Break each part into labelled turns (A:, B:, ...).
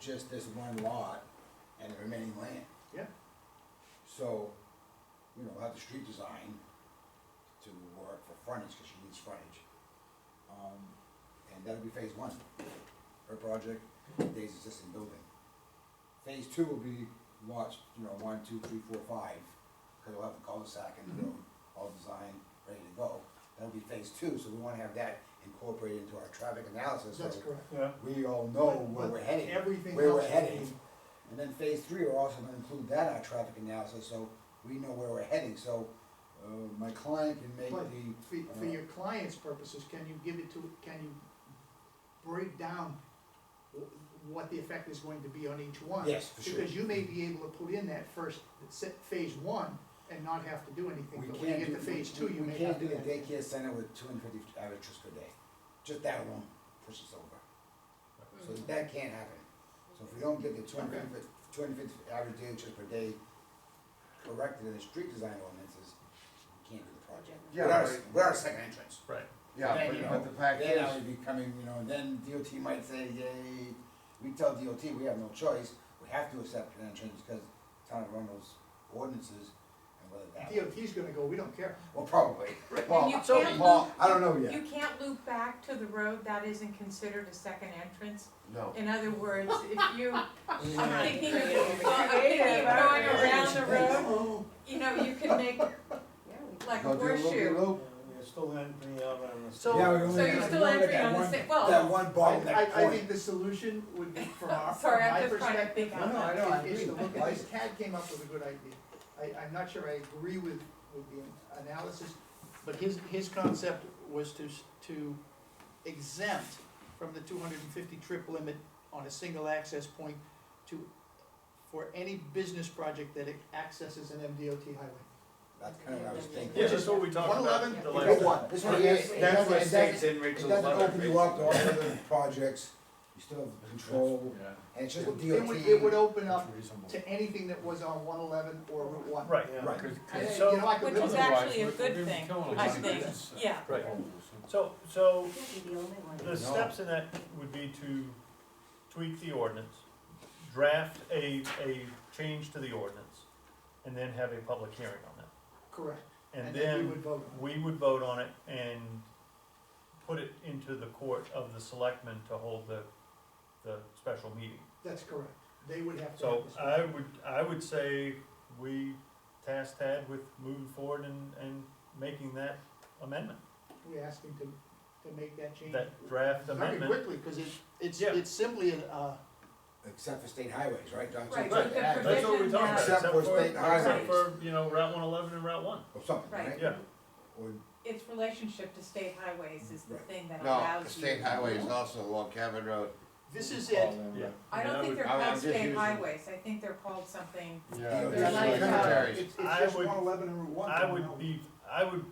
A: just this one lot and the remaining land.
B: Yeah.
A: So, you know, have the street design to work for frontage, cause she needs frontage. Um, and that'll be phase one, her project, Dave's existing building. Phase two will be lots, you know, one, two, three, four, five, cause we'll have the cul-de-sac and
B: Mm-hmm.
A: the road all designed, ready to go. That'll be phase two, so we wanna have that incorporated into our traffic analysis, so
B: That's correct.
C: Yeah,
A: we all know
B: But-
A: where
B: but
A: we're heading.
B: everything
A: Where we're
B: else will
A: heading,
B: be-
A: and then phase three, we're also gonna include that in our traffic analysis, so we know where we're heading, so, uh, my client can make
B: But
A: the.
B: for, for
A: uh,
B: your client's purposes, can you give it to, can you break down wh- what the effect is going to be on each one?
A: Yes, for sure. Mm-hmm.
B: Because you may be able to put in that first, set, phase one, and not have to do anything,
A: We
B: but when you
A: can't
B: get
A: do-
B: to phase
A: we-
B: two,
A: we-
B: you may have to.
A: We can't do the daycare center with two hundred fifty average trips per day, just that alone pushes over, so that can't happen. So if we don't get the two hundred fifty average daily trips per day corrected in the street design ordinances, we can't do the project.
D: Yeah,
A: We're our-
D: right.
A: We're our second entrance.
C: right.
D: Yeah,
A: Then, you
D: but,
A: know,
D: but the fact
A: Then I
D: is,
A: would be coming, you know, and then DOT might say, yay, we tell DOT, we have no choice, we have to accept pedestrians because town of Arundel's ordinances and whether that,
B: DOT's gonna go, we don't care.
A: well, probably.
D: well,
E: you
D: so-
E: can't
D: well,
E: loop-
D: I don't know
E: You
D: yet,
E: can't loop back to the road, that isn't considered a second entrance.
D: no.
E: In other words, if you, I'm
A: Yeah.
E: thinking of, I'm thinking of going around the road, you know, you can make like a
D: Go do a loopy
E: horseshoe.
D: loop.
C: We're still entering out on the.
E: So-
A: Yeah, we only
E: So you're
A: have-
E: still
A: we only got
E: entering
A: that
E: on the
A: one-
E: same, well,
A: That one
B: I, I,
A: bottleneck
B: I think
A: point.
B: the solution would be from our, from my
E: sorry, I'm just trying to
B: perspective,
E: think
A: No,
E: out
A: no, I
E: loud.
A: know, I
B: is
A: agree.
B: to look at
A: I-
B: this, Tad came up with a good idea. I, I'm not sure I agree with, with the analysis, but his, his concept was to, s- to exempt from the two hundred and fifty trip limit on a single access point to, for any business project that accesses an MDOT highway.
A: That's kind of what I was thinking.
C: Yeah, that's what we talked about.
B: 111,
C: the
B: you
C: last
B: go
C: time.
B: one.
A: This
D: Well,
A: one,
D: yes,
A: yes,
D: That's
A: it doesn't,
D: what
A: it
D: states
A: doesn't,
D: in
A: it
D: Rachel's
A: doesn't
D: letter,
A: open you up to all
D: basically.
A: other projects, you still have control,
C: Yeah.
A: and it's just
B: It
A: with
B: would,
A: DOT.
B: it would open up
C: reasonable.
B: to anything that was on one eleven or Route one.
C: Right.
A: Right.
B: I-
C: So-
B: you know, I could
E: Which is
B: live-
E: actually a good thing, I
A: lot of
E: think, yeah.
C: Right, so, so the
A: No.
C: steps in that would be to tweak the ordinance, draft a, a change to the ordinance, and then have a public hearing on that.
B: Correct.
C: And
B: we
C: then
B: would vote on
C: we would vote on it and put it into the court of the selectmen to hold the, the special meeting.
B: it. That's correct. They would have to.
C: So
B: have this.
C: I would, I would say we task Tad with moving forward and, and making that amendment,
B: We asked him to, to make that change.
C: that draft
B: Very
C: amendment.
B: quickly, cause it's, it's,
C: Yeah.
B: it's simply an, uh,
A: Except for state highways, right? Don't- don't-
E: Right, but the
A: don't-
C: That's what we talked about,
A: Except
C: except
A: for
C: for,
A: state
C: except
A: highways.
C: for, you know, Route one eleven and Route one,
A: Or something,
E: Right.
A: right?
C: yeah.
A: Or
E: Its relationship to state highways is the thing that
D: No,
E: allows
D: the
E: you.
D: state highway is also along Cabot Road.
B: this is it.
C: Yeah.
E: I
C: And I
E: don't think
C: would-
E: they're
D: I- I'm
E: called
D: just
E: state
D: using-
E: highways, I think they're called something,
A: Yeah,
D: They're
A: that's
D: like uh,
A: right.
D: cemeteries.
B: It's, it's
C: I
B: just
C: would-
B: one eleven and Route one.
C: I
B: from now
C: would
B: on.
C: be, I would,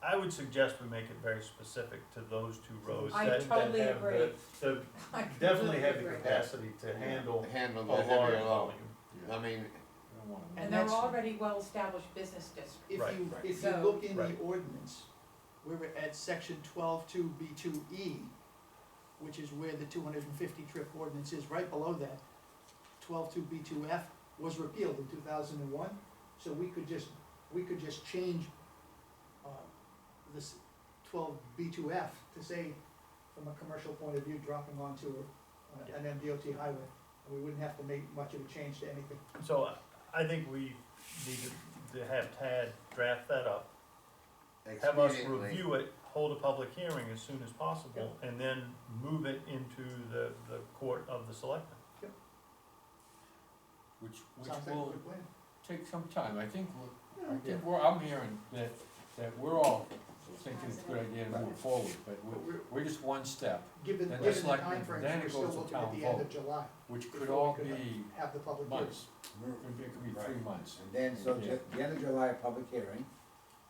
C: I would suggest we make it very specific to those two roads
E: I
C: that, that have
E: totally
C: the,
E: agree.
C: the,
E: I
C: definitely have the
E: completely agree.
C: capacity to handle
D: Handle
C: a
D: the
C: large
D: heavier load.
C: volume.
D: I mean,
E: And
B: And
E: they're
B: that's,
E: already well-established business districts.
B: if
C: Right.
B: you,
A: Right.
B: if you
E: So-
B: look in the
C: Right.
B: ordinance, we were at section twelve two B two E, which is where the two hundred and fifty trip ordinance is, right below that. Twelve two B two F was repealed in two thousand and one, so we could just, we could just change, uh, this twelve B two F to say, from a commercial point of view, dropping onto a- an MDOT highway. And we wouldn't have to make much of a change to anything.
C: So uh, I- I think we need to, to have Tad draft that up, have us
D: expediently,
C: review it, hold a public hearing as soon as possible, and then move it into the, the court of the selectmen.
F: Which, which
B: Sounds like a
F: will
B: good plan.
F: take some time, I think, we're- I
B: Yeah.
F: think we're, I'm hearing that, that we're all thinking it's a good idea to move forward, but
B: But
F: we're,
B: we're-
F: we're just one step,
B: Given,
F: Then
B: given the
F: just like
B: timeframes,
F: then it
B: we're still
F: goes to
B: looking at
F: town
B: the end of
F: vote.
B: July,
F: which could
B: Before
F: all
B: we could, uh,
F: be
B: have the public hearing.
F: months,
A: we're-
F: it could be three
A: Right.
F: months.
A: And then, so
F: Yeah.
A: ju- the end of July, public hearing,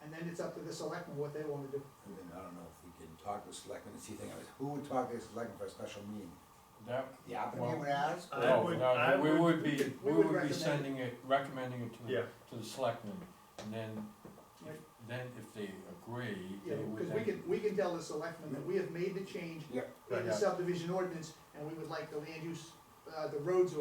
B: And then it's up to the selectmen what they wanna do.
A: and then I don't know if we can talk to selectmen, it's the thing, I was, who would talk to the selectmen for a special meeting?
F: That,
A: The applicant
F: Well-
A: would ask?
C: I
F: no,
C: would-
F: no,
C: I
F: we
C: would-
F: would
B: we
F: be,
B: could- we
F: we
B: would
F: would be
B: recommend it.
F: sending it, recommending it to,
C: Yeah.
F: the- to the selectmen, and then,
B: Right.
F: then if they agree,
B: Yeah,
F: they would
B: cause we
F: then,
B: can, we can tell the selectmen that we have made the change
A: Yeah.
B: in
C: Yeah.
B: the subdivision ordinance, and we would like the land use uh, the roads